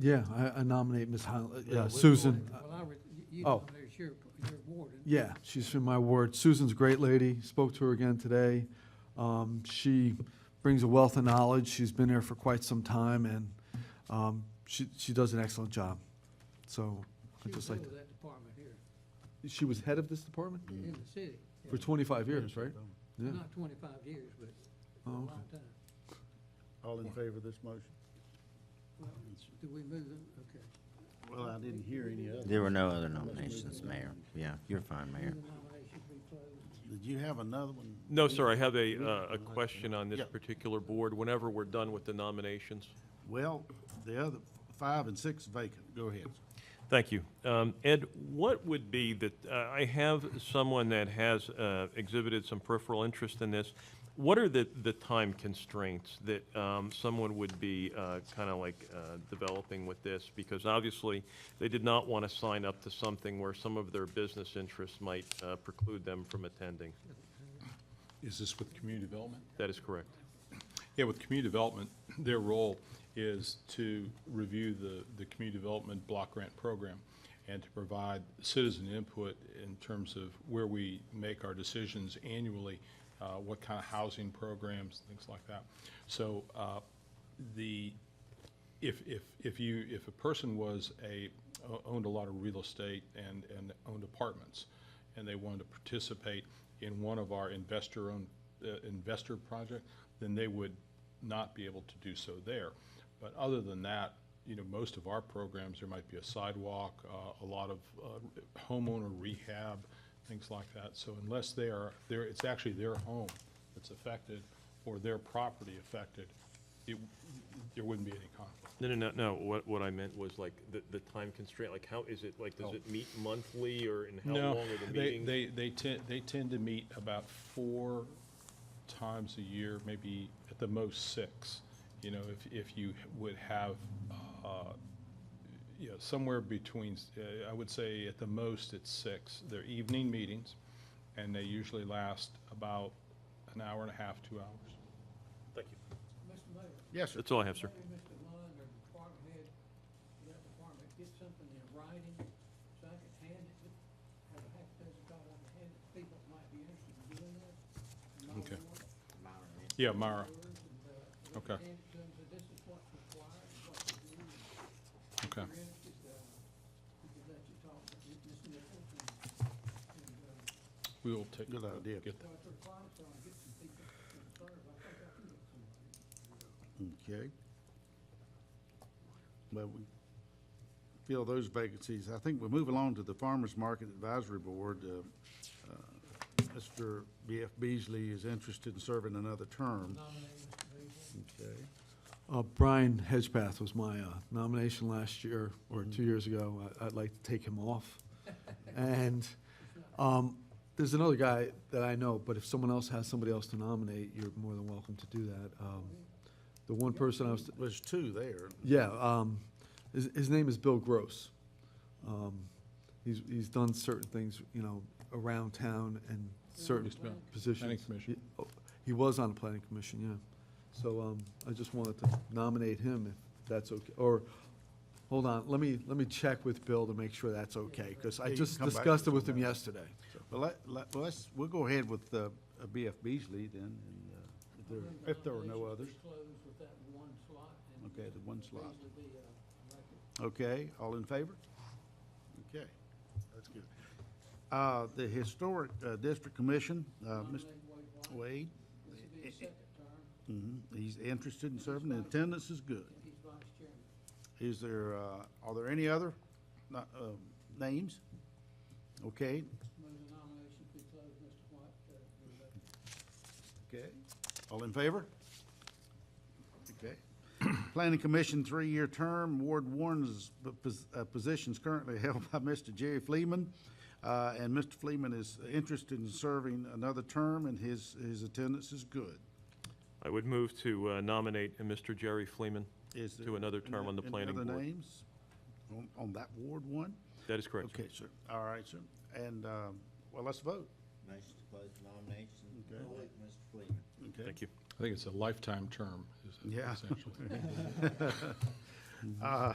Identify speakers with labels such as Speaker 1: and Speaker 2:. Speaker 1: Yeah, I- I nominate Ms. Highland,
Speaker 2: Yeah,
Speaker 1: uh,
Speaker 2: we-
Speaker 1: Susan.
Speaker 3: Um, Well, I, re- you
Speaker 1: Oh.
Speaker 3: nominated your, your warden.
Speaker 1: Yeah, she's from my ward. Susan's a great lady, spoke to her again today. Um, She brings a wealth of knowledge, she's been there for quite some time, and um, she, she does an excellent job. So
Speaker 3: She was
Speaker 1: I'd just
Speaker 3: head
Speaker 1: like,
Speaker 3: of that department here,
Speaker 1: to- she was head of this department
Speaker 2: Mm.
Speaker 3: in the city,
Speaker 1: for 25 years, right? Yeah.
Speaker 3: not twenty-five years, but a
Speaker 1: Oh,
Speaker 3: long
Speaker 1: okay.
Speaker 3: time.
Speaker 2: All in favor of this motion?
Speaker 3: Well, Do we move them? Okay.
Speaker 2: Well, I didn't hear any other.
Speaker 4: There were no other nominations, Mayor. Yeah, you're fine, Mayor.
Speaker 3: The nomination be closed.
Speaker 2: Did you have another one?
Speaker 5: No, sir, I have a, uh, a question on this
Speaker 2: Yeah.
Speaker 5: particular board, whenever we're done with the nominations.
Speaker 2: Well, the other, five and six vacant, go ahead.
Speaker 5: Thank you. Um, Ed, what would be the, uh, I have someone that has uh, exhibited some peripheral interest in this. What are the, the time constraints that um, someone would be kind of like uh, developing with this? Because obviously, they did not want to sign up to something where some of their business interests might uh, preclude them from attending.
Speaker 6: Is this with community development?
Speaker 5: That is correct.
Speaker 6: Yeah, with community development, their role is to review the, the community development block grant program and to provide citizen input in terms of where we make our decisions annually, uh, what kind of housing programs, things like that. So, uh, the, if, if, if you, if a person was a, o- owned a lot of real estate and, and owned apartments, and they wanted to participate in one of our investor-owned, uh, investor project, then they would not be able to do so there. But other than that, you know, most of our programs, there might be a sidewalk, uh, a lot of uh, homeowner rehab, things like that. So unless they are, there, it's actually their home that's affected or their property affected, it, there wouldn't be any conflict.
Speaker 5: No, no, no, no, what, what I meant was like, the, the time constraint, like how is it, like, does it meet monthly or in how long are the
Speaker 6: Oh. They,
Speaker 5: meetings?
Speaker 6: they, they tend, they tend to meet about four times a year, maybe at the most six. You know, if, if you would have, uh, you know, somewhere between, uh, I would say at the most it's six. They're evening meetings, and they usually last about an hour and a half, two hours.
Speaker 5: Thank you.
Speaker 3: Mr. Mayor,
Speaker 2: Yes, sir.
Speaker 5: That's all I have, sir.
Speaker 3: maybe Mr. Lund or department head, of that department, get something in writing, so I can hand it, to- have a half dozen dollars to hand it to people that might be interested in doing that.
Speaker 6: Okay. Yeah, Myra, Okay.
Speaker 3: And it comes, that this is what's required, what to do, and
Speaker 6: okay.
Speaker 3: if you're interested, uh, we could let you talk to Ms. Nichols and, and, uh,
Speaker 6: We will take.
Speaker 2: Good idea.
Speaker 6: get that.
Speaker 3: what their clients are, and get some people to serve. I think I can get somebody.
Speaker 2: Okay. Well, we fill those vacancies. I think we move along to the Farmers Market Advisory Board. Uh, uh, Mr. B.F. Beasley is interested in serving another term. Okay.
Speaker 1: Uh, Brian Hedgepath was my uh, nomination last year, or two years ago. I- I'd like to take him off. And um, there's another guy that I know, but if someone else has somebody else to nominate, you're more than welcome to do that. Um, The one person I was,
Speaker 2: There's two there.
Speaker 1: yeah, um, his, his name is Bill Gross. Um, He's, he's done certain things, you know, around town and certain
Speaker 6: Used to be on
Speaker 1: positions.
Speaker 6: commission.
Speaker 1: He- oh, He was on the planning commission, yeah. So, um, I just wanted to nominate him if that's okay, or, hold on, let me, let me check with Bill to make sure that's okay, because
Speaker 2: Yeah,
Speaker 1: I
Speaker 2: you
Speaker 1: just
Speaker 2: can come back
Speaker 1: discussed
Speaker 2: to
Speaker 1: it
Speaker 2: us
Speaker 1: with
Speaker 2: on
Speaker 1: him
Speaker 2: that.
Speaker 1: yesterday.
Speaker 2: Well, let, let, well, let's, we'll go ahead with uh, uh, B.F. Beasley then, and uh, if there, if there are no others.
Speaker 3: Nominations be closed with that one slot and
Speaker 2: Okay, the one slot.
Speaker 3: usually be, uh, elected.
Speaker 2: Okay, all in favor? Okay, that's good. Uh, the Historic uh, District Commission, uh, Mr.
Speaker 3: Nominate Wade White.
Speaker 2: Wade,
Speaker 3: This will be his second term,
Speaker 2: mhm, he's interested in serving, and attendance is good.
Speaker 3: and he's vice chairman.
Speaker 2: Is there, uh, are there any other, no- uh, names? Okay,
Speaker 3: Move the nominations be closed, Mr. White, uh, be elected.
Speaker 2: okay, all in favor? Okay. Planning Commission, three-year term, Ward One's p- pos- uh, position's currently held by Mr. Jerry Fleeman, uh, and Mr. Fleeman is interested in serving another term, and his, his attendance is good.
Speaker 5: I would move to uh, nominate uh, Mr. Jerry Fleeman
Speaker 2: Is there
Speaker 5: to another term
Speaker 2: any-
Speaker 5: on the
Speaker 2: any
Speaker 5: planning
Speaker 2: other
Speaker 5: board.
Speaker 2: names on, on that Ward One?
Speaker 5: That is correct, sir.
Speaker 2: Okay, sir, all right, sir, and, um, well, let's vote.
Speaker 4: Motion to close nominations.
Speaker 2: Okay.
Speaker 4: Mr. Fleeman.
Speaker 2: Okay.
Speaker 5: Thank you.
Speaker 6: I think it's a lifetime term, is
Speaker 2: Yeah.
Speaker 6: essentially.
Speaker 2: Uh,